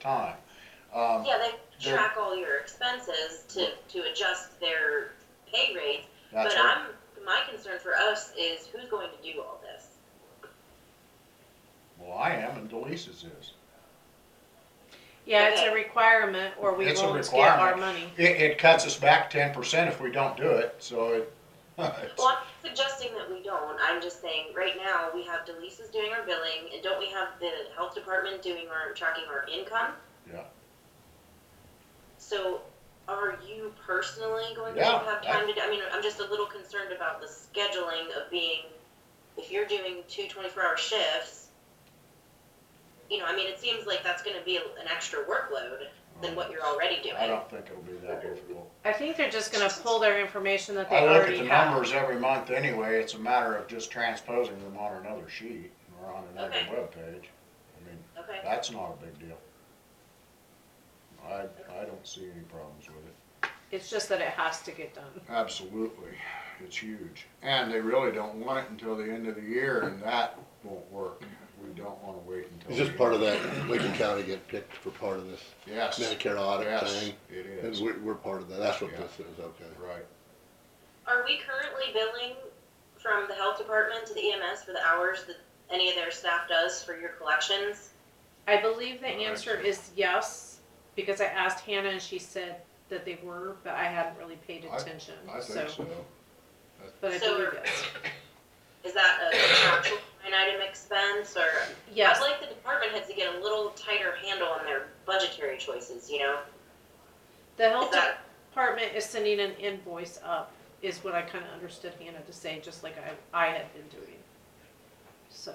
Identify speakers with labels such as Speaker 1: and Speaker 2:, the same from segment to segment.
Speaker 1: time. Um,
Speaker 2: Yeah, they
Speaker 1: They're-
Speaker 2: track all your expenses to, to adjust their pay rates,
Speaker 1: that's
Speaker 2: but
Speaker 1: what-
Speaker 2: I'm, my concern for us is who's going to do all this?
Speaker 1: Well, I am, and Delisa's is.
Speaker 3: Yeah, it's
Speaker 2: uh,
Speaker 3: a requirement or we
Speaker 1: It's a
Speaker 3: won't get our
Speaker 1: requirement.
Speaker 3: money.
Speaker 1: It, it cuts us back ten percent if we don't do it, so it, it's-
Speaker 2: Well, I'm not suggesting that we don't, I'm just saying, right now, we have Delisa's doing our billing, and don't we have the health department doing our, tracking our income?
Speaker 1: Yeah.
Speaker 2: So, are you personally going to
Speaker 1: Yeah,
Speaker 2: have time to, do- I mean, I'm just a little concerned about the scheduling of being, if you're doing two twenty-four hour shifts, you know, I mean, it seems like that's gonna be an extra workload than what you're already doing.
Speaker 1: I don't think it'll be that difficult.
Speaker 3: I think they're just gonna pull their information that they
Speaker 1: I look at
Speaker 3: already
Speaker 1: the
Speaker 3: have.
Speaker 1: numbers every month anyway, it's a matter of just transposing them on another sheet or on another
Speaker 2: Okay.
Speaker 1: webpage. I mean,
Speaker 2: Okay,
Speaker 1: that's not a big deal. I, I don't see any problems with it.
Speaker 3: It's just that it has to get done.
Speaker 1: Absolutely, it's huge. And they really don't want it until the end of the year, and that won't work. We don't wanna wait until.
Speaker 4: Is this
Speaker 1: the
Speaker 4: part of
Speaker 1: end.
Speaker 4: that Lincoln County get picked for part of this
Speaker 1: Yes.
Speaker 4: Medicare audit
Speaker 1: Yes,
Speaker 4: thing?
Speaker 1: It
Speaker 4: And
Speaker 1: is,
Speaker 4: we're, we're part of that, that's what
Speaker 1: Yeah.
Speaker 4: this is, okay.
Speaker 1: right.
Speaker 2: are we currently billing from the health department to the EMS for the hours that any of their staff does for your collections?
Speaker 3: I believe the
Speaker 1: Alright.
Speaker 3: answer is yes, because I asked Hannah and she said that they were, but I hadn't really paid
Speaker 1: I-
Speaker 3: attention,
Speaker 1: I think
Speaker 3: so,
Speaker 1: so.
Speaker 3: but I
Speaker 2: So-
Speaker 3: believe yes.
Speaker 2: Is that a contractual line item expense or?
Speaker 3: Yes,
Speaker 2: I'd like the department heads to get a little tighter handle on their budgetary choices, you know?
Speaker 3: the
Speaker 2: Is
Speaker 3: health
Speaker 2: that,
Speaker 3: department is sending an invoice up, is what I kinda understood Hannah to say, just like I, I had been doing. So,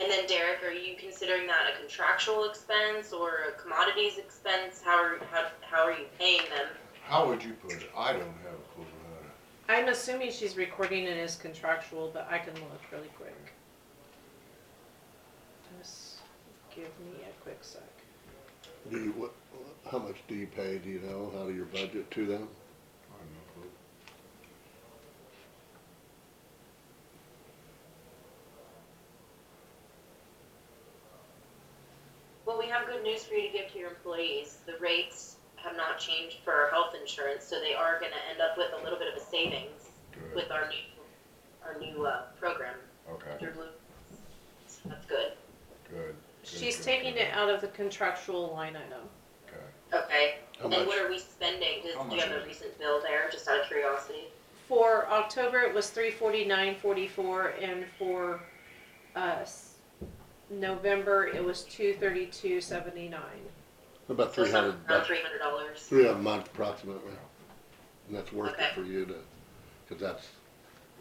Speaker 2: and then Derek, are you considering that a contractual expense or a commodities expense? How are, how, how are you paying them?
Speaker 1: How would you put it? I don't have a clue how to.
Speaker 3: I'm assuming she's recording and is contractual, but I can look really quick. Just give me a quick sec.
Speaker 4: Do you, what, how much do you pay, do you know, out of your budget to them?
Speaker 1: I have no clue.
Speaker 2: Well, we have good news for you to give to your employees. The rates have not changed for our health insurance, so they are gonna end up with a little bit of a savings
Speaker 1: Good,
Speaker 2: with our new, our new, uh, program
Speaker 1: okay,
Speaker 2: through Blue. So That's good.
Speaker 1: good,
Speaker 3: She's
Speaker 1: good,
Speaker 3: taking
Speaker 1: good.
Speaker 3: it out of the contractual line item.
Speaker 1: okay.
Speaker 2: Okay,
Speaker 4: How
Speaker 2: and
Speaker 4: much?
Speaker 2: what are we spending? Does,
Speaker 1: How
Speaker 2: do you
Speaker 1: much
Speaker 2: have
Speaker 1: is
Speaker 2: a
Speaker 1: it?
Speaker 2: recent bill there, just out of curiosity?
Speaker 3: For October, it was three forty-nine forty-four, and for, uh, s- November, it was two thirty-two seventy-nine.
Speaker 4: About
Speaker 2: So
Speaker 4: three
Speaker 2: some,
Speaker 4: hundred
Speaker 2: around
Speaker 4: bucks,
Speaker 2: three hundred dollars.
Speaker 4: three a month approximately. And that's worth
Speaker 2: Okay.
Speaker 4: it for you to, cause that's,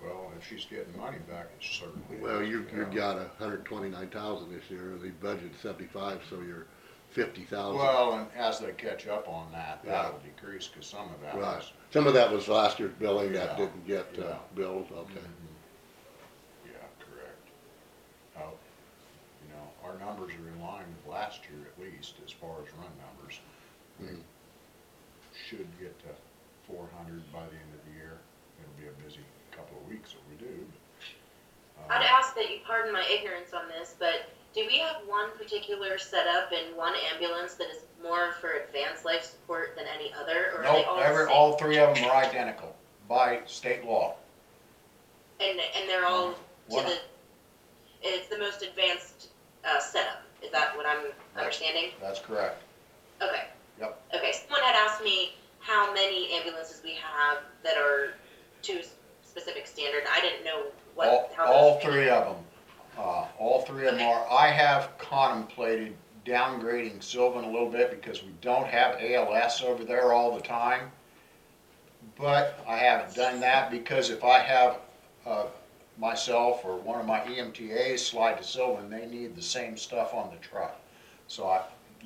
Speaker 1: Well, if she's getting money back, it's certainly.
Speaker 4: well, you,
Speaker 1: yeah.
Speaker 4: you got a hundred twenty-nine thousand this year, the budget's seventy-five, so you're fifty thousand.
Speaker 1: Well, and as they catch up on that,
Speaker 4: Yeah.
Speaker 1: that'll decrease, cause some of that
Speaker 4: Right,
Speaker 1: is.
Speaker 4: some of that was last year's billing
Speaker 1: Yeah.
Speaker 4: that didn't get, uh,
Speaker 1: Yeah.
Speaker 4: billed, okay.
Speaker 1: Mhm. Mm-hmm. Yeah, correct. Oh, you know, our numbers are in line with last year at least, as far as run numbers.
Speaker 4: Mhm.
Speaker 1: Should get to four hundred by the end of the year. It'll be a busy couple of weeks if we do. but, uh,
Speaker 2: I'd ask that you pardon my ignorance on this, but do we have one particular setup in one ambulance that is more for advanced life support than any other, or are they
Speaker 1: Nope,
Speaker 2: all the
Speaker 1: every,
Speaker 2: same?
Speaker 1: all three of them are identical by state law.
Speaker 2: And, and they're all to
Speaker 1: One-
Speaker 2: the, it's the most advanced, uh, setup, is that what I'm understanding?
Speaker 1: That's correct.
Speaker 2: Okay.
Speaker 1: Yep.
Speaker 2: Okay, someone had asked me how many ambulances we have that are to a specific standard. I didn't know what,
Speaker 1: All,
Speaker 2: how
Speaker 1: all
Speaker 2: those-
Speaker 1: three of them, uh, all three of them are, I have contemplated downgrading Sylvan a little bit because we don't have ALS over there all the time. But I haven't done that because if I have, uh, myself or one of my E EMTAs slide to Sylvan, they need the same stuff on the truck. So I,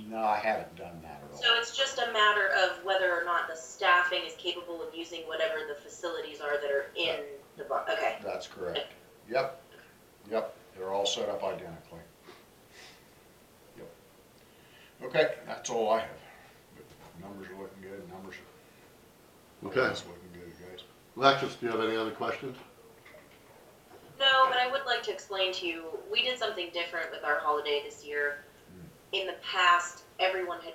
Speaker 1: no, I haven't done that at all.
Speaker 2: So it's just a matter of whether or not the staffing is capable of using whatever the facilities are that are in the bar. Okay.
Speaker 1: That's correct. Yep, yep, they're all set up identically. Yep. Okay, that's all I have. But Numbers are looking good, numbers are,
Speaker 4: Okay,
Speaker 1: that's looking good, guys.
Speaker 4: Alexis, do you have any other questions?
Speaker 2: No, but I would
Speaker 1: Hmm.
Speaker 2: like to explain to you, we did something different with our holiday this year. In the past, everyone had